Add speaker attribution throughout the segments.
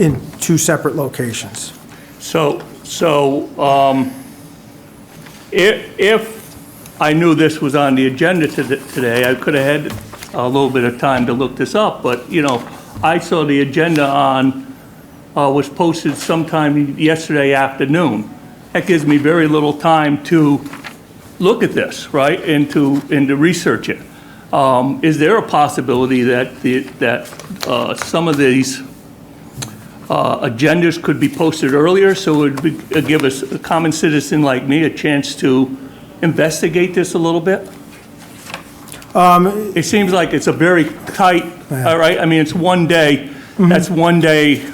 Speaker 1: in two separate locations.
Speaker 2: So, so um, if, if I knew this was on the agenda to- today, I could have had a little bit of time to look this up, but, you know, I saw the agenda on, uh, was posted sometime yesterday afternoon. That gives me very little time to look at this, right, and to, and to research it. Um, Is there a possibility that, the- that uh, some of these uh, agendas could be posted earlier, so it would uh, give us, a common citizen like me, a chance to investigate this a little bit?
Speaker 1: Um,
Speaker 2: It seems like it's a very tight, all right, I mean, it's one day, that's one day,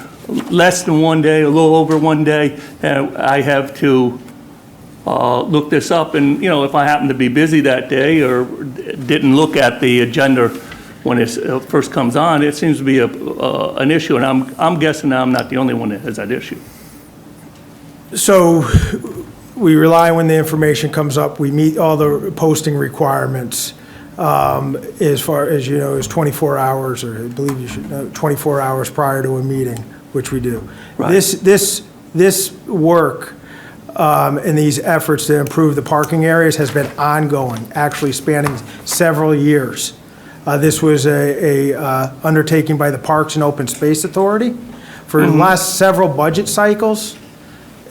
Speaker 2: less than one day, a little over one day, and I have to uh, look this up, and, you know, if I happen to be busy that day or didn't look at the agenda when it first comes on, it seems to be a, uh, an issue, and I'm, I'm guessing I'm not the only one that has that issue.
Speaker 1: So we rely when the information comes up, we meet all the posting requirements um, as far as, you know, is 24 hours, or I believe you should know, 24 hours prior to a meeting, which we do.
Speaker 2: Right.
Speaker 1: This, this, this work um, and these efforts to improve the parking areas has been ongoing, actually spanning several years. Uh, This was a, a uh, undertaking by the Parks and Open Space Authority for the last several budget cycles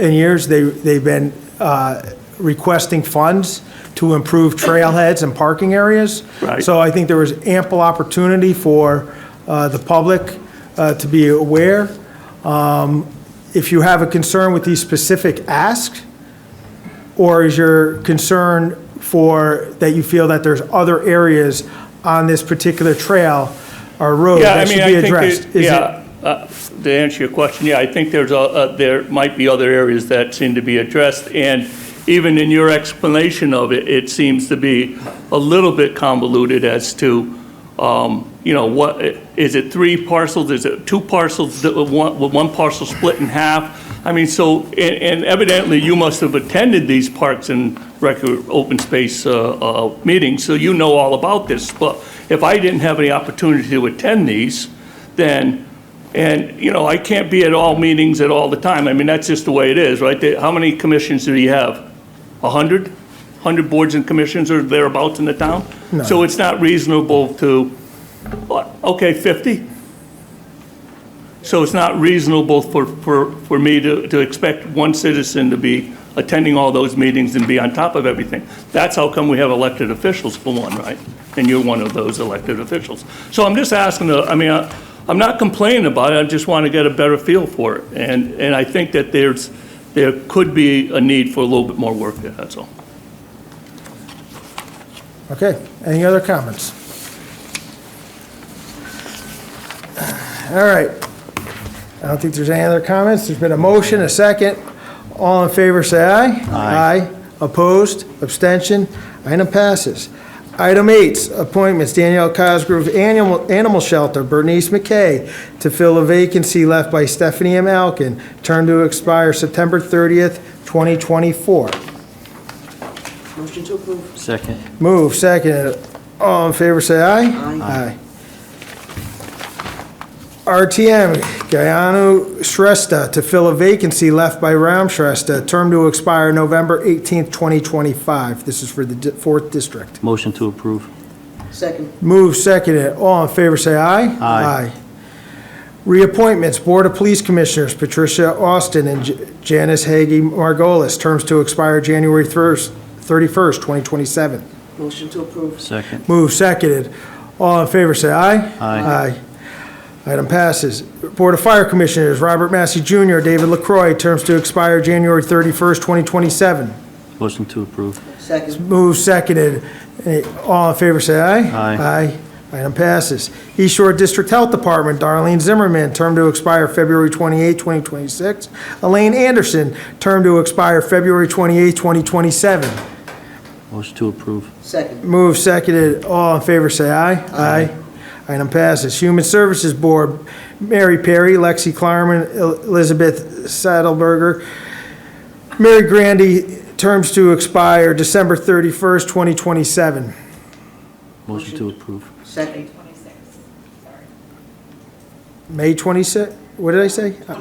Speaker 1: in years, they, they've been uh, requesting funds to improve trailheads and parking areas.
Speaker 2: Right.
Speaker 1: So I think there was ample opportunity for uh, the public uh, to be aware. Um, If you have a concern with these specific asks, or is your concern for, that you feel that there's other areas on this particular trail or road
Speaker 2: Yeah, I
Speaker 1: that should
Speaker 2: mean,
Speaker 1: be
Speaker 2: I think,
Speaker 1: addressed? Is
Speaker 2: it-
Speaker 1: it-
Speaker 2: yeah, uh, to answer your question, yeah, I think there's a- a, there might be other areas that seem to be addressed, and even in your explanation of it, it seems to be a little bit convoluted as to, um, you know, what, is it three parcels, is it two parcels, that were one with one parcel split in half? I mean, so, and and evidently, you must have attended these parks and record, open space uh, uh, meetings, so you know all about this, but if I didn't have any opportunity to attend these, then, and, you know, I can't be at all meetings at all the time. I mean, that's just the way it is, right? They- How many commissions do you have? A hundred? Hundred boards and commissions or thereabouts in the town? So it's not reasonable to, what, okay, fifty? So it's not reasonable for, for, for me to, to expect one citizen to be attending all those meetings and be on top of everything. That's how come we have elected officials for one, right? And you're one of those elected officials. So I'm just asking, uh, I mean, I- I'm not complaining about it, I just want to get a better feel for it. And, and I think that there's, there could be a need for a little bit more work there, that's all.
Speaker 1: Okay, any other comments? All right. I don't think there's any other comments. There's been a motion, a second. All in favor, say aye. Aye. Opposed, abstention, item passes. Item eight, appointments, Danielle Cosgrove, Animal Animal Shelter, Bernice McKay, to fill a vacancy left by Stephanie M. Alkin, term to expire September 30th, 2024.
Speaker 3: Motion to approve.
Speaker 4: Second.
Speaker 1: Move, second. All in favor, say aye.
Speaker 3: Aye.
Speaker 1: Aye. RTM, Gayano Shrestha, to fill a vacancy left by Ram Shrestha, term to expire November 18th, 2025. This is for the di- 4th District.
Speaker 4: Motion to approve.
Speaker 3: Second.
Speaker 1: Move, second. All in favor, say aye.
Speaker 4: Aye.
Speaker 1: Reappointments, Board of Police Commissioners, Patricia Austin and J- Janice Hagee Margolis, terms to expire January 1st, 31st, 2027.
Speaker 3: Motion to approve.
Speaker 4: Second.
Speaker 1: Move seconded. All in favor, say aye.
Speaker 4: Aye.
Speaker 1: Aye. Item passes. Board of Fire Commissioners, Robert Massey Jr., David LaCroy, terms to expire January 31st, 2027.
Speaker 4: Motion to approve.
Speaker 3: Second.
Speaker 1: Move seconded. Eh, All in favor, say aye.
Speaker 4: Aye.
Speaker 1: Aye. Item passes. East Shore District Health Department, Darlene Zimmerman, term to expire February 28th, 2026. Elaine Anderson, term to expire February 28th, 2027.
Speaker 4: Motion to approve.
Speaker 3: Second.
Speaker 1: Move seconded. All in favor, say aye. Aye. Item passes. Human Services Board, Mary Perry, Lexi Klarman, El- Elizabeth Saddleberger, Mary Grandy, terms to expire December 31st, 2027.
Speaker 4: Motion to approve.
Speaker 3: Second.
Speaker 1: May 26th? what did I say?